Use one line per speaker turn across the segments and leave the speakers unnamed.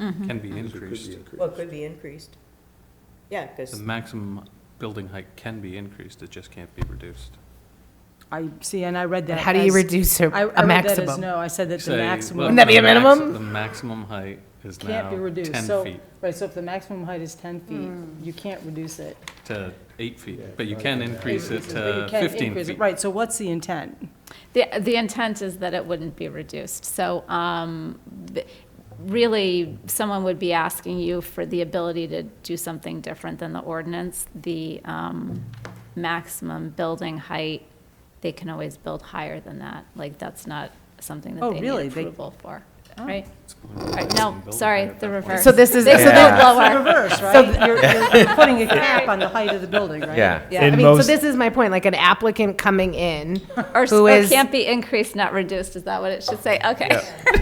Mm-hmm.
can be
So it could be
increased.
Well, it could be increased. Yeah,
The
because,
maximum building height can be increased, it just can't be reduced.
I, see, and I read that
And how do you
as-
reduce a,
I- I
a
read that as
maximum?
No, I said that the
Say,
maximum.
well,
Wouldn't that be a
the maxi-
minimum?
The maximum height is now
Can't be reduced.
ten
So-
feet
Right, so if the maximum height is 10
Hmm.
feet, you can't reduce it.
to eight feet, but you can increase it
But you
to
can
Uh, fifteen
increase it.
feet.
Right, so what's the intent?
The, the intent is that it wouldn't be reduced. So um, th- really, someone would be asking you for the ability to do something different than the ordinance. The um, maximum building height, they can always build higher than that. Like, that's not something
Oh,
that they
really?
need
They-
approval for, right?
It's
All right,
maximum
No,
building
sorry,
height at
the
that point.
reverse.
Oh. So this is, so
They can
that-
go lower.
Reverse, right? You're, you're putting a cap on the height of the building, right?
Yeah.
yeah, I
In
mean, so
most-
this is my point, like an applicant coming in,
Or,
who
or
is-
can't be increased, not reduced, is that what it should say? Okay.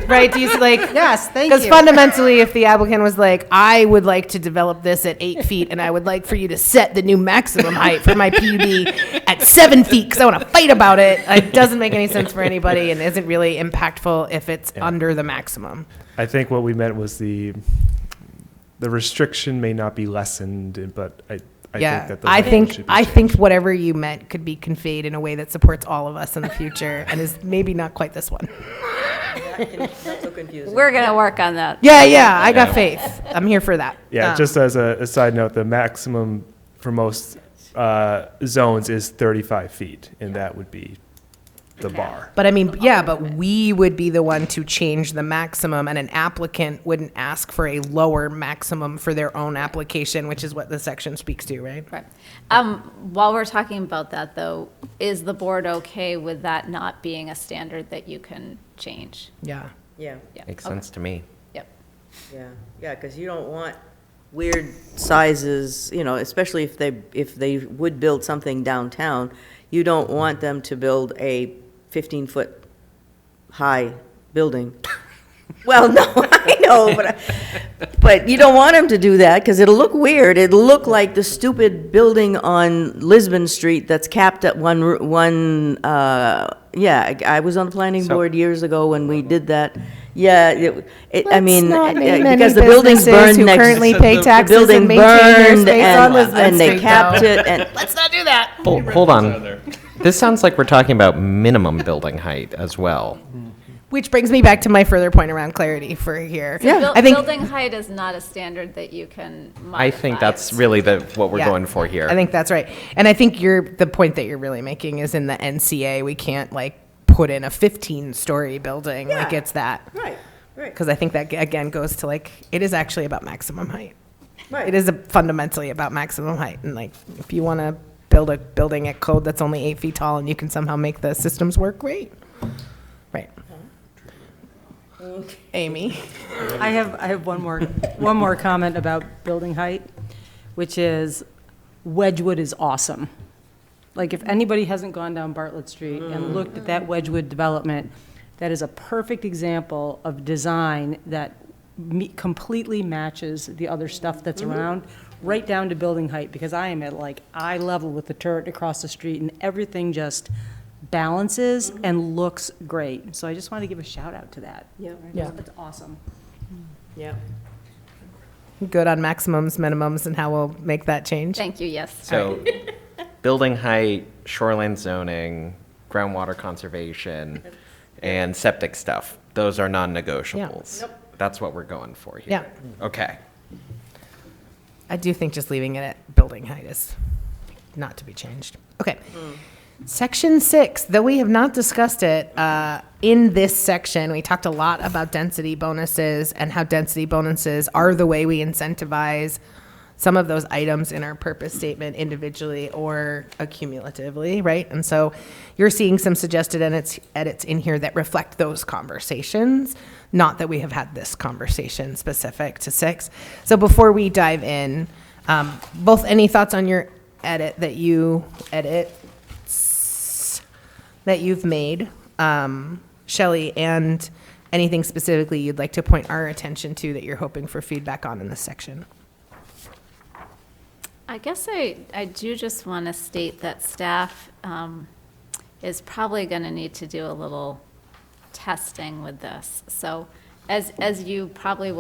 right? Do you see, like,
Yes, thank you.
because fundamentally, if the applicant was like, I would like to develop this at eight feet, and I would like for you to set the new maximum height for my PUD at seven feet, because I want to fight about it, it doesn't make any sense for anybody and isn't really impactful if it's under the maximum.
I think what we meant was the the restriction may not be lessened, but I, I
yeah,
think that the
I
language
think
should be
I
changed.
think whatever you meant could be conveyed in a way that supports all of us in the future, and is maybe not quite this one.
that's so confusing.
We're going to work on that.
Yeah, yeah, I got faith. I'm here for that.
Yeah,
Um,
just as a, a side note, the maximum for most uh, zones is 35 feet, and that would be the bar.
But I mean, yeah, but we would be the one to change the maximum, and an applicant wouldn't ask for a lower maximum for their own application, which is what the section speaks to, right?
Right. Um, while we're talking about that, though, is the board okay with that not being a standard that you can change?
Yeah.
Yeah,
Yeah,
Makes
okay,
sense to me.
Yep.
yeah, yeah, because you don't want weird sizes, you know, especially if they, if they would build something downtown, you don't want them to build a 15-foot high building. Well, no, I know, but, I- but you don't want them to do that, because it'll look weird. It'll look like the stupid building on Lisbon Street that's capped at one, ru- one, uh, yeah, I I was on the planning
So-
board years ago when we did that. Yeah, it, it- I mean,
Let's not name
uh,
many
because the buildings
businesses
burned
who
next.
currently
the
pay taxes and
building
maintain their
burned
space
and-
on Lisbon
And they
Street,
capped
though.
it, and,
Let's not do that.
Hold, hold on. This sounds like we're talking about minimum building height as well.
Which brings me back to my further point around clarity for here.
Buil-
I think
Building height is not a standard that you can modify.
I think that's really the, what we're
Yeah.
going for here.
I think that's right. And I think you're, the point that you're really making is in the NCA, we can't like put in a 15 story building. Like
Yeah.
it's that.
right, right,
Because I think that again goes to like, it is actually about maximum height.
right.
It is a- fundamentally about maximum height. And like, if you want to build a building at code that's only eight feet tall and you can somehow make the systems work, great. Right. Amy?
I have, I have one more, one more comment about building height, which is Wedgewood is awesome. Like, if anybody hasn't gone down Bartlett Street and looked at that Wedgewood development, that is a perfect example of design that me- completely matches the other stuff that's around, right down to building height, because I am at like eye level with the turret across the street, and everything just balances and looks great. So I just wanted to give a shout out to that.
Yeah,
Yeah.
It's awesome.
yeah.
Good on maximums, minimums, and how we'll make that change?
Thank you, yes.
So, building height, shoreline zoning, groundwater conservation, and septic stuff, those are non-negotiables. That's what we're going for here. Yeah. Okay.
I do think just leaving it at building height is not to be changed. Okay. Section six, though we have not discussed it, uh, in this section, we talked a lot about density bonuses and how density bonuses are the way we incentivize some of those items in our purpose statement individually or accumulatively, right? And so you're seeing some suggested edits, edits in here that reflect those conversations, not that we have had this conversation specific to six. So before we dive in, um, both any thoughts on your edit that you edit that you've made, um, Shelley, and anything specifically you'd like to point our attention to that you're hoping for feedback on in this section?
I guess I, I do just want to state that staff um, is probably going to need to do a little testing with this. So as, as you probably will